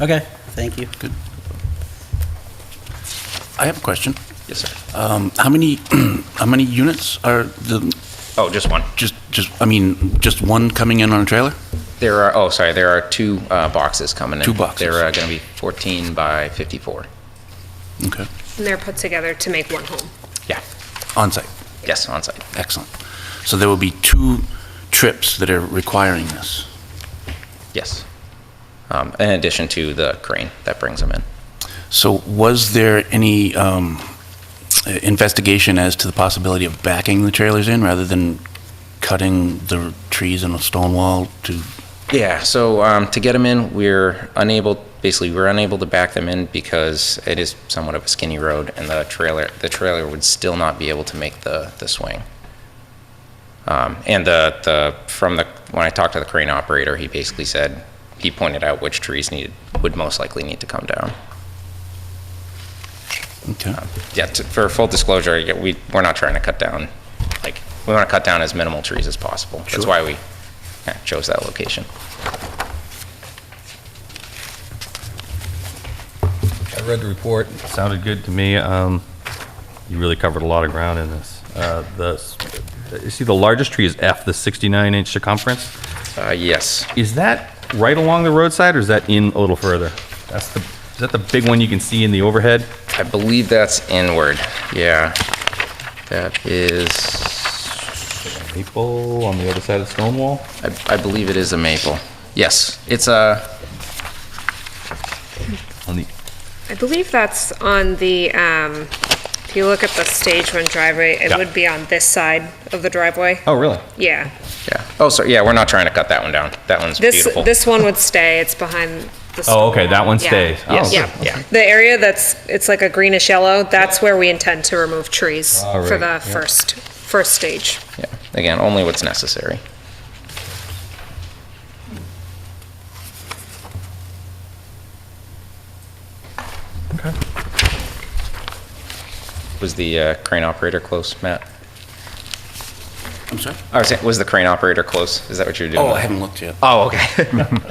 Okay, thank you. Good. I have a question. Yes, sir. Um, How many, how many units are the, Oh, just one. just, just, I mean, just one coming in on a trailer? There are, oh, sorry, there are two uh, boxes coming in. Two boxes. They're going to be 14 by 54. Okay, And they're put together to make one home. Yeah, On site. yes, on site. excellent. So there will be two trips that are requiring this. yes. Um, In addition to the crane that brings them in. So was there any um, investigation as to the possibility of backing the trailers in rather than cutting the trees in a stone wall to, Yeah, so um, to get them in, we're unable, basically, we're unable to back them in because it is somewhat of a skinny road, and the trailer, the trailer would still not be able to make the, the swing. Um, And the, the, from the, when I talked to the crane operator, he basically said, he pointed out which trees needed, would most likely need to come down. okay, Yeah, to- for full disclosure, yeah, we, we're not trying to cut down, like, we want to cut down as minimal trees as possible. That's why we eh, chose that location. I read the report. Sounded good to me. Um, You really covered a lot of ground in this. Uh, The, s- you see, the largest tree is F, the 69-inch circumference. Uh, Yes. Is that right along the roadside, or is that in a little further? That's the, is that the big one you can see in the overhead? I believe that's inward. Yeah. That is, Maple on the other side of the stone wall? I, I believe it is a maple. Yes, it's a, On the, I believe that's on the, um, if you look at the stage one driveway, it Yeah. would be on this side of the driveway. oh, really? Yeah. yeah. Oh, sorry, yeah, we're not trying to cut that one down. That one's This, beautiful. this one would stay. It's behind the. Oh, okay, that one Yeah. stays. Oh, Yes. good. Yeah, yeah. The area that's, it's like a greenish yellow, that's where we intend to remove trees All for right, the yeah. first, first stage. Yeah, again, only what's necessary. Was the uh, crane operator close, Matt? I'm sorry? I was saying, was the crane operator close? Is that what you're doing? Oh, I haven't looked yet. Oh, okay.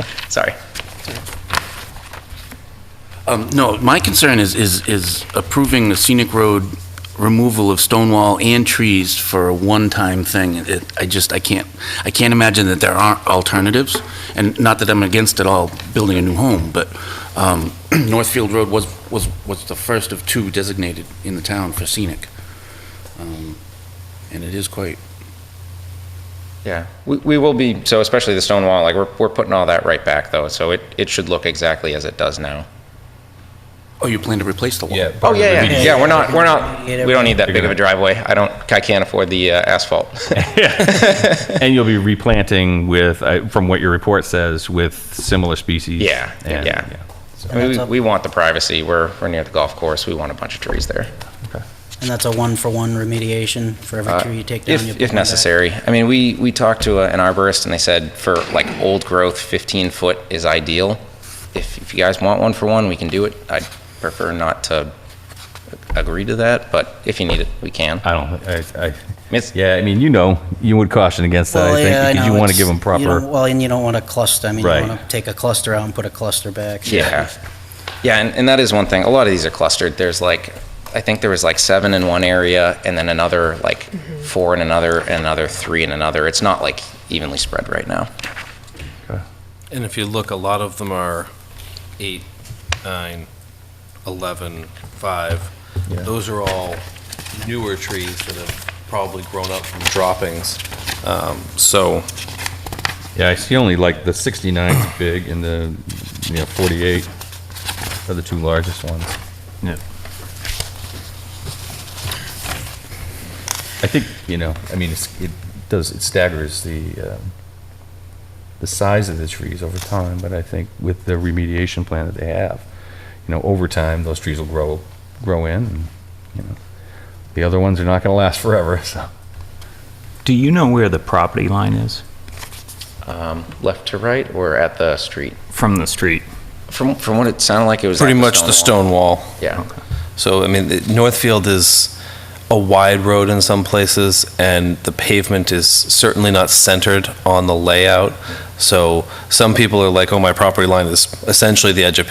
Sorry. Um, No, my concern is, is, is approving the scenic road removal of stone wall and trees for a one-time thing. It, I just, I can't, I can't imagine that there aren't alternatives, and not that I'm against at all building a new home, but um, Northfield Road was, was, was the first of two designated in the town for scenic. Um, And it is quite, Yeah, we, we will be, so especially the stone wall, like, we're, we're putting all that right back, though, so it, it should look exactly as it does now. oh, you plan to replace the wall? Oh, yeah, yeah, yeah, we're not, we're not, Get it we don't need that Figure big of it a out. driveway. I don't, I can't afford the uh, asphalt. And you'll be replanting with, I- from what your report says, with similar species? Yeah, and- yeah. so- We, That's up. we want the privacy, we're, we're near the golf course, we want a bunch of trees there, And that's a one-for-one remediation for every tree you take down? you Uh, if, put one if back? necessary. I mean, we, we talked to a- an arborist, and they said for, like, old growth, 15-foot is ideal. If, if you guys want one for one, we can do it. I'd prefer not to agree to that, but if you need it, we can. I don't, I, I, It's- yeah, I mean, you know, you would caution against that, Well, I yeah, I think, because you know, want to it's- give them you don't- proper, Well, and you don't want to cluster, I mean, you Right. want to take a cluster out and put a cluster back. Yeah. Yeah, and, and that is one thing. A lot of these are clustered. There's like, I think there was like seven in one area and then another like four in another and another three in another. It's not like evenly spread right now. And if you look, a lot of them are eight, nine, 11, five. Yeah. Those are all newer trees that have probably grown up from droppings. Um, So, yeah, I see only like the 69's big and the, you know, 48 are the two largest ones. Yeah. I think, you know, I mean, it's, it does, it staggers the, um, the size of the trees over time, but I think with the remediation plan that they have, you know, over time, those trees will grow, grow in, and, you know, the other ones are not gonna last forever, so. Do you know where the property line is Um, left to right or at the street? from the street? From, from what it sounded like, it was. at pretty much the stone wall. wall. Yeah. So, I mean, it- Northfield is a wide road in some places, and the pavement is certainly not centered on the layout. So some people are like, oh, my property line is essentially the edge of